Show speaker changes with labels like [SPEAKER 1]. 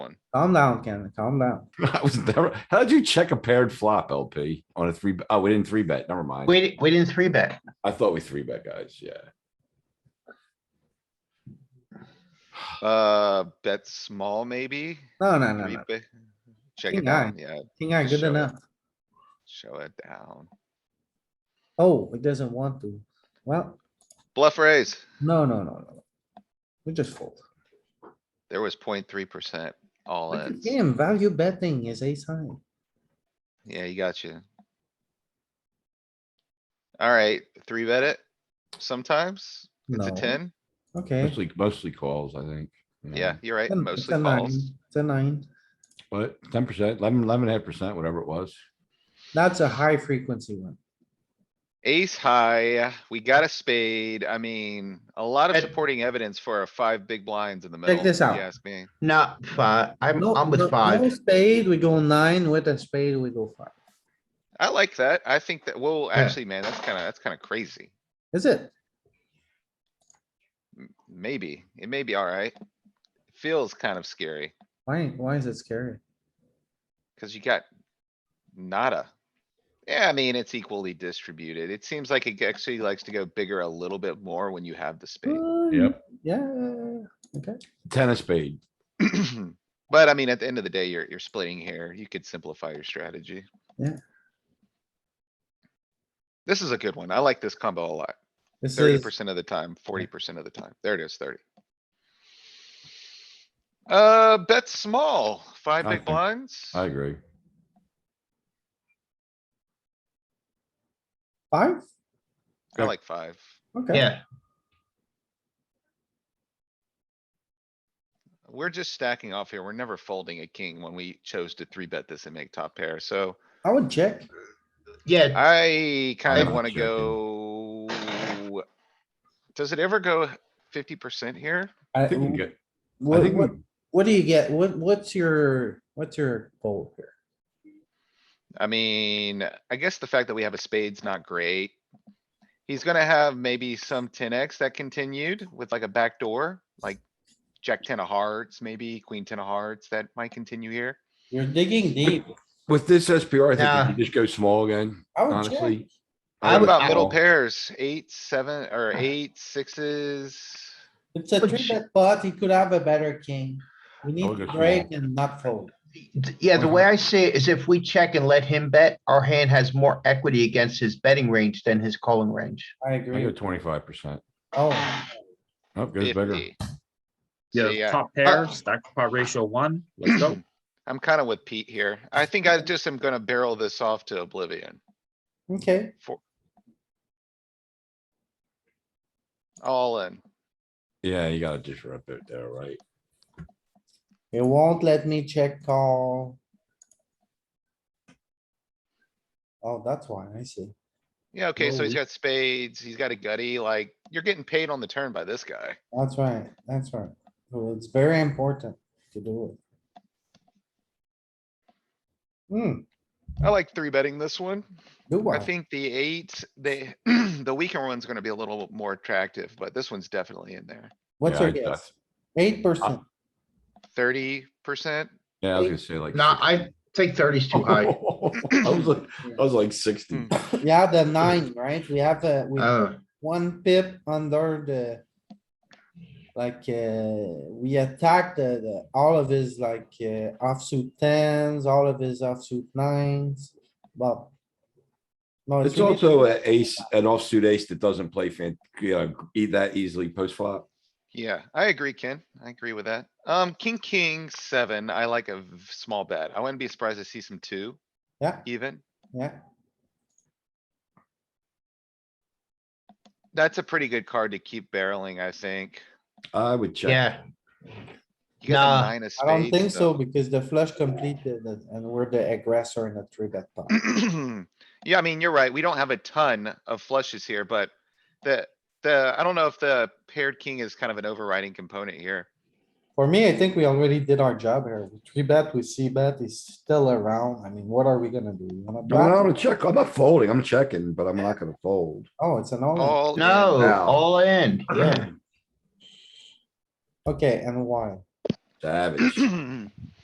[SPEAKER 1] down.
[SPEAKER 2] Calm down, Ken, calm down.
[SPEAKER 3] I was never, how'd you check a paired flop LP on a three? Oh, we didn't three bet. Never mind.
[SPEAKER 4] We, we didn't three bet.
[SPEAKER 3] I thought we three bet guys. Yeah.
[SPEAKER 1] Uh, bet small maybe?
[SPEAKER 2] No, no, no,
[SPEAKER 1] Three
[SPEAKER 2] no.
[SPEAKER 1] bet. Check
[SPEAKER 2] King
[SPEAKER 1] it
[SPEAKER 2] high.
[SPEAKER 1] down, yeah,
[SPEAKER 2] King eye, good
[SPEAKER 1] Show it.
[SPEAKER 2] enough.
[SPEAKER 1] show it down.
[SPEAKER 2] Oh, it doesn't want to. Well,
[SPEAKER 1] Bluff raise,
[SPEAKER 2] no, no, no, no. We just fold.
[SPEAKER 1] there was 0.3 percent all
[SPEAKER 2] Look
[SPEAKER 1] in.
[SPEAKER 2] at him, value betting is a sign.
[SPEAKER 1] Yeah, you got you. Alright, three bet it sometimes. It's a
[SPEAKER 2] No.
[SPEAKER 1] ten.
[SPEAKER 2] Okay.
[SPEAKER 3] Mostly, mostly calls, I think. you know.
[SPEAKER 1] Yeah, you're right.
[SPEAKER 2] Ten- it's a
[SPEAKER 1] Mostly
[SPEAKER 2] nine.
[SPEAKER 1] calls.
[SPEAKER 2] It's a nine.
[SPEAKER 3] But ten percent, eleven, eleven and a half percent, whatever it was.
[SPEAKER 2] That's a high frequency one.
[SPEAKER 1] Ace high, we got a spade. I mean, a lot of
[SPEAKER 4] Check-
[SPEAKER 1] supporting evidence for a five big blinds in the middle.
[SPEAKER 2] Check this
[SPEAKER 1] if
[SPEAKER 2] out.
[SPEAKER 1] You ask me.
[SPEAKER 4] Not five. I'm,
[SPEAKER 2] No,
[SPEAKER 4] I'm
[SPEAKER 2] no-
[SPEAKER 4] with
[SPEAKER 2] no
[SPEAKER 4] five.
[SPEAKER 2] Spade, we go nine. With a spade, we go five.
[SPEAKER 1] I like that. I think that, well,
[SPEAKER 4] Yeah.
[SPEAKER 1] actually, man, that's kinda, that's kinda crazy.
[SPEAKER 2] Is it?
[SPEAKER 1] M- Maybe, it may be alright. Feels kind of scary,
[SPEAKER 2] Why, why is it scary?
[SPEAKER 1] cuz you got nada. Yeah, I mean, it's equally distributed. It seems like it actually likes to go bigger a little bit more when you have the spade.
[SPEAKER 2] Hmm.
[SPEAKER 3] Yep.
[SPEAKER 2] Yeah,
[SPEAKER 3] Tennis spade.
[SPEAKER 2] Mm.
[SPEAKER 1] But I mean, at the end of the day, you're, you're splitting here. You could simplify your strategy.
[SPEAKER 2] Yeah.
[SPEAKER 1] This is a good one. I like this combo a lot.
[SPEAKER 2] this
[SPEAKER 1] Thirty
[SPEAKER 2] is,
[SPEAKER 1] percent of the time, forty percent of the time. There it is, thirty. Uh, bet small, five
[SPEAKER 3] I
[SPEAKER 1] big
[SPEAKER 3] think-
[SPEAKER 1] blinds.
[SPEAKER 3] I agree.
[SPEAKER 2] five?
[SPEAKER 1] I like five.
[SPEAKER 2] Okay,
[SPEAKER 4] Yeah,
[SPEAKER 1] We're just stacking off here. We're never folding a king when we chose to three bet this and make top pair. So
[SPEAKER 2] I would check.
[SPEAKER 4] yeah.
[SPEAKER 1] I kind of
[SPEAKER 3] I'm
[SPEAKER 1] wanna
[SPEAKER 3] checking.
[SPEAKER 1] go. Does it ever go fifty percent here?
[SPEAKER 3] I think we can
[SPEAKER 2] I,
[SPEAKER 3] get, I
[SPEAKER 2] what,
[SPEAKER 3] think,
[SPEAKER 2] what,
[SPEAKER 3] we-
[SPEAKER 2] what do you get? What, what's your, what's your goal here?
[SPEAKER 1] I mean, I guess the fact that we have a spade's not great. He's gonna have maybe some ten X that continued with like a backdoor, like jack ten of hearts, maybe queen ten of hearts that might continue here.
[SPEAKER 2] You're digging deep.
[SPEAKER 3] with this SPR, I think
[SPEAKER 4] Nah.
[SPEAKER 3] we can just go small again,
[SPEAKER 2] I would check.
[SPEAKER 3] honestly.
[SPEAKER 4] I
[SPEAKER 1] What
[SPEAKER 4] would-
[SPEAKER 1] about middle
[SPEAKER 3] call.
[SPEAKER 1] pairs? Eight, seven, or eight, sixes?
[SPEAKER 2] It's a
[SPEAKER 4] Would
[SPEAKER 2] three
[SPEAKER 4] you-
[SPEAKER 2] bet pot. He could have a better king. We
[SPEAKER 3] would
[SPEAKER 2] need
[SPEAKER 3] go
[SPEAKER 2] to
[SPEAKER 3] small.
[SPEAKER 2] break and not fold.
[SPEAKER 4] Yeah, the way I see it is if we check and let him bet, our hand has more equity against his betting range than his calling range.
[SPEAKER 2] I
[SPEAKER 3] I go
[SPEAKER 2] agree.
[SPEAKER 3] twenty-five percent.
[SPEAKER 2] Oh,
[SPEAKER 3] Oh, goes bigger.
[SPEAKER 1] 50. So,
[SPEAKER 5] Yeah,
[SPEAKER 1] yeah,
[SPEAKER 5] top pair, stack pot ratio one, let's go.
[SPEAKER 1] I'm kinda with Pete here. I think I just am gonna barrel this off to oblivion.
[SPEAKER 2] okay.
[SPEAKER 1] All in.
[SPEAKER 3] Yeah, you gotta disrupt it there, right?
[SPEAKER 2] It won't let me check call. Oh, that's why. I see.
[SPEAKER 1] Yeah, okay, so he's
[SPEAKER 5] Well,
[SPEAKER 1] got spades, he's got a gutty, like, you're getting paid on the turn by this guy.
[SPEAKER 2] That's right. That's right. So it's very important to do it. Hmm,
[SPEAKER 1] I like three betting this one.
[SPEAKER 2] do
[SPEAKER 1] I
[SPEAKER 2] I?
[SPEAKER 1] think the eight, the, the weaker one's gonna be a little more attractive, but this one's definitely in there.
[SPEAKER 2] What's
[SPEAKER 3] Yeah,
[SPEAKER 2] your
[SPEAKER 3] I- I-
[SPEAKER 2] guess? Eight percent.
[SPEAKER 1] Thirty percent,
[SPEAKER 3] Yeah, I was gonna say like.
[SPEAKER 4] No, I think thirty's too high.
[SPEAKER 3] I was like, I was like sixty.
[SPEAKER 2] Yeah, the nine, right? We have a, we have
[SPEAKER 4] Oh,
[SPEAKER 2] one pip under the. Like, uh, we attack the, the, all of his like, uh, offsuit tens, all of his offsuit nines, but. No, it's
[SPEAKER 3] It's
[SPEAKER 2] really,
[SPEAKER 3] also an ace, an offsuit ace that doesn't play fan, you know, eat that easily post flop.
[SPEAKER 1] yeah, I agree, Ken, I agree with that. Um, king, king, seven, I like a v- small bet, I wouldn't be surprised to see some two
[SPEAKER 2] yeah,
[SPEAKER 1] even.
[SPEAKER 2] yeah.
[SPEAKER 1] That's a pretty good card to keep barreling, I think.
[SPEAKER 3] I would check.
[SPEAKER 4] yeah,
[SPEAKER 1] You got the
[SPEAKER 4] Nah,
[SPEAKER 1] nine of
[SPEAKER 2] I don't
[SPEAKER 1] spades,
[SPEAKER 2] think so
[SPEAKER 1] though.
[SPEAKER 2] because the flush completed it and we're the aggressor in a three bet pot.
[SPEAKER 1] Yeah, I mean, you're right. We don't have a ton of flushes here, but the, the, I don't know if the paired king is kind of an overriding component here.
[SPEAKER 2] For me, I think we already did our job here. We three bet, we see bet, he's still around. I mean, what are we gonna do? You wanna
[SPEAKER 3] No, I'm
[SPEAKER 2] block?
[SPEAKER 3] gonna check. I'm not folding. I'm checking, but I'm not gonna fold.
[SPEAKER 2] Oh, it's an all.
[SPEAKER 1] All in.
[SPEAKER 4] no,
[SPEAKER 3] Now.
[SPEAKER 4] all in, yeah.
[SPEAKER 2] Okay, and why?
[SPEAKER 3] Savage.